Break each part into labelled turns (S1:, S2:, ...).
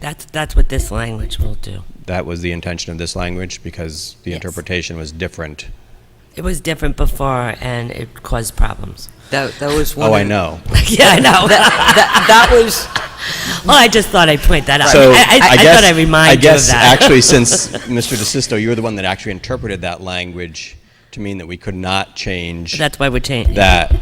S1: That's, that's what this language will do.
S2: That was the intention of this language because the
S1: Yes.
S2: interpretation was different.
S1: It was different before, and it caused problems.
S3: That, that was one.
S2: Oh, I
S3: of-
S2: know.
S1: yeah, I know.
S3: That, that was,
S1: well, I just thought I'd point that out.
S2: So
S1: I, I, I,
S2: guess,
S1: thought I'd remind
S2: I guess
S1: you of that.
S2: actually, since Mr. DeSisto, you were the one that actually interpreted that language to mean that we could not change
S1: that's why we're changing.
S2: that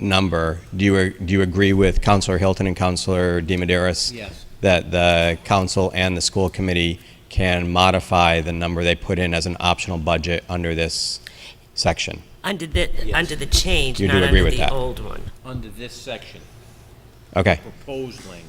S2: number. Do you, do you agree with Counselor Hilton and Counselor DiMederos?
S4: Yes.
S2: That the council and the school committee can modify the number they put in as an optional budget under this section?
S1: under the under the change,
S2: You do
S1: not
S2: agree
S1: under
S2: with
S1: the
S2: that.
S1: old one.
S4: under this section,
S2: Okay,
S4: proposed language.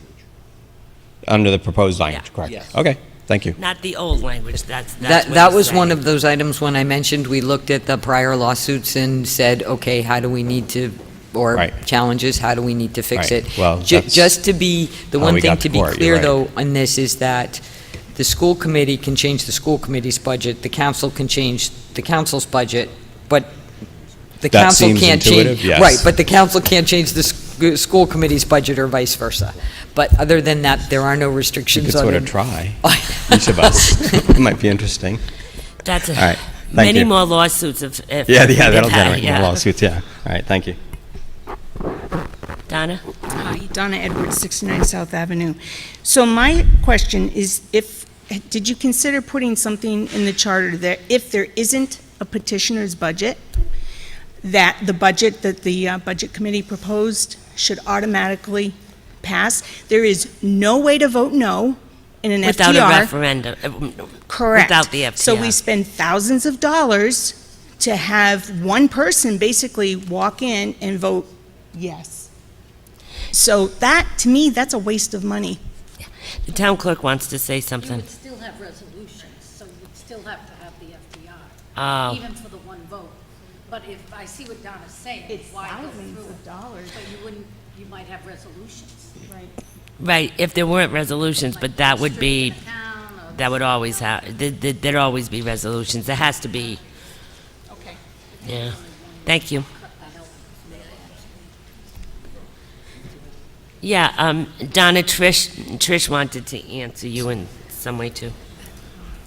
S2: under the proposed language, correct?
S4: Yes.
S2: Okay, thank you.
S1: Not the old language. That's, that's
S3: that,
S1: what
S3: that
S1: he's
S3: was one
S1: saying.
S3: of those items when I mentioned, we looked at the prior lawsuits and said, okay, how do we need to, or
S2: Right.
S3: challenges, how do we need to fix
S2: Right.
S3: it?
S2: Well,
S3: Ju-
S2: that's
S3: Just to be, the
S2: how
S3: one
S2: we
S3: thing
S2: got to
S3: to be
S2: court, you're
S3: clear,
S2: right.
S3: though, on this is that the school committee can change the school committee's budget, the council can change the council's budget, but the
S2: That
S3: council
S2: seems
S3: can't change.
S2: intuitive, yes.
S3: Right, but the council can't change the sc- school committee's budget or vice versa. But other than that, there are no
S2: You
S3: restrictions
S2: could
S3: on
S2: sort
S3: it.
S2: of try, each of us. Might be interesting.
S1: That's a,
S2: All right, thank
S1: many
S2: you.
S1: more lawsuits. If, if
S2: Yeah, yeah,
S1: if that,
S2: that'll generate more
S1: yeah.
S2: lawsuits, yeah. All right, thank you.
S1: Donna,
S5: Hi, Donna Edwards, 69 South Avenue. So my question is if, did you consider putting something in the charter that if there isn't a petitioner's budget, that the budget that the uh, Budget Committee proposed should automatically pass? There is no way to vote no in an FTR.
S1: without a referendum, uh,
S5: Correct.
S1: without the
S5: So we
S1: FTR.
S5: spend thousands of dollars to have one person basically walk in and vote yes. So that, to me, that's a waste of money.
S1: the town clerk wants to say
S6: You
S1: something.
S6: would still have resolutions, so you'd still have to have the FDR,
S1: Oh,
S6: even for the one vote. But if, I see what Donna's saying, why go through it?
S5: dollars.
S6: But you wouldn't, you might have resolutions.
S1: right. If there weren't resolutions, but that would be
S6: Restricting the town or-
S1: that would always have. There'd always be resolutions. There has to be.
S5: Okay.
S1: Yeah. Thank you. Yeah, um, Donna, Trish, Trish wanted to answer you in some way too.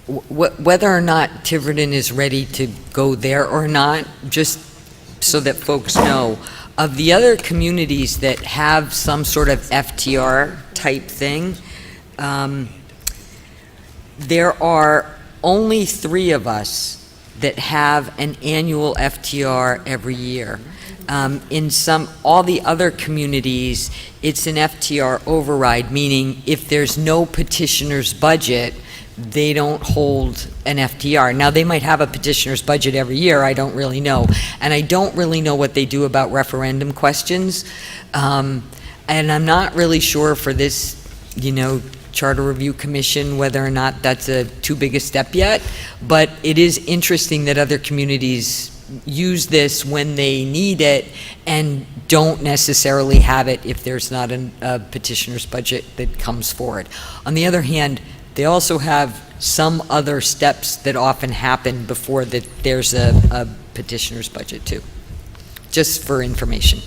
S3: Wh- Whether or not Tiverton is ready to go there or not, just so that folks know, of the other communities that have some sort of FTR-type thing, um, there are only three of us that have an annual FTR every year. Um, In some, all the other communities, it's an FTR override, meaning if there's no petitioner's budget, they don't hold an FTR. Now, they might have a petitioner's budget every year, I don't really know. And I don't really know what they do about referendum questions. Um, And I'm not really sure for this, you know, Charter Review Commission, whether or not that's a too big a step yet. But it is interesting that other communities use this when they need it and don't necessarily have it if there's not an- a petitioner's budget that comes forward. On the other hand, they also have some other steps that often happen before that there's a, a petitioner's budget too, just for information.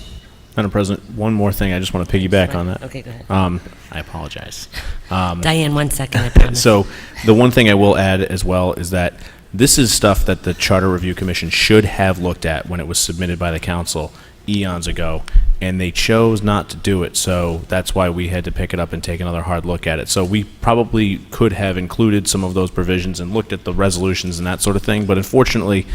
S7: Madam President, one more thing. I just want to piggyback on that.
S1: Okay, go ahead.
S7: Um, I apologize. Um,
S1: Diane, one second, I promise.
S7: so the one thing I will add as well is that this is stuff that the Charter Review Commission should have looked at when it was submitted by the council eons ago, and they chose not to do it. So that's why we had to pick it up and take another hard look at it. So we probably could have included some of those provisions and looked at the resolutions and that sort of thing. But unfortunately,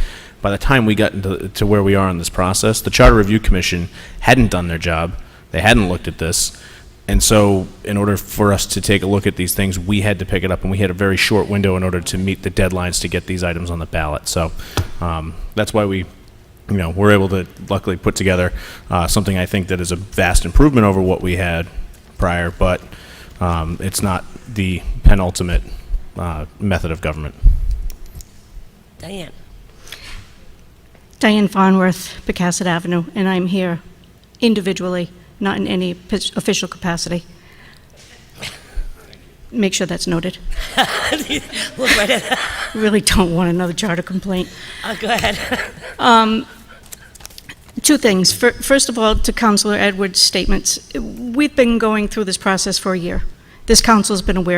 S7: by the time we got into, to where we are in this process, the Charter Review Commission hadn't done their job. They hadn't looked at this. And so, in order for us to take a look at these things, we had to pick it up, and we had a very short window in order to meet the deadlines to get these items on the ballot. So, um, that's why we, you know, were able to luckily put together uh, something I think that is a vast improvement over what we had prior, but um, it's not the penultimate uh, method of government.
S1: Diane,
S8: Diane Farnworth, Pecasset Avenue, and I'm here individually, not in any pos- official capacity. Make sure that's noted.
S1: look right at,
S8: Really don't want another charter complaint. Um,
S1: oh, go ahead.
S8: Two things. Fir- First of all, to Counselor Edwards' statements, we've been going through this process for a year, this council's been aware